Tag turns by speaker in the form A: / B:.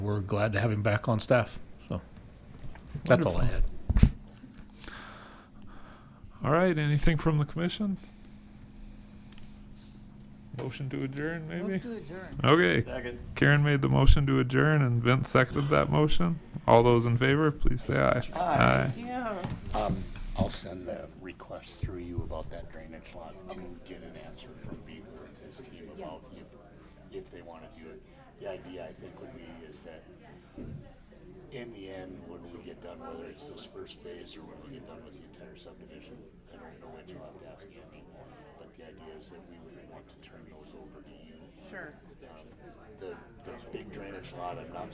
A: we're glad to have him back on staff. So that's all I
B: Wonderful.
A: had.
B: All right, anything from the commission? Motion to adjourn, maybe?
C: Move to adjourn.
B: Okay,
D: Second.
B: Karen made the motion to adjourn and Vince seconded that motion. All those in favor, please say aye.
D: Aye.
C: Yeah.
E: Um, I'll send a request through you about that drainage lot to get an answer from Beaver and his team about if, if they wanna do it. The idea, I think, would be is that in the end, when we get done, whether it's this first phase or when we get done with the entire subdivision, I don't know which, you'll have to ask Andy. But the idea is that we would want to turn those over to you. Um,
C: Sure.
E: The, the big drainage lot, I'm not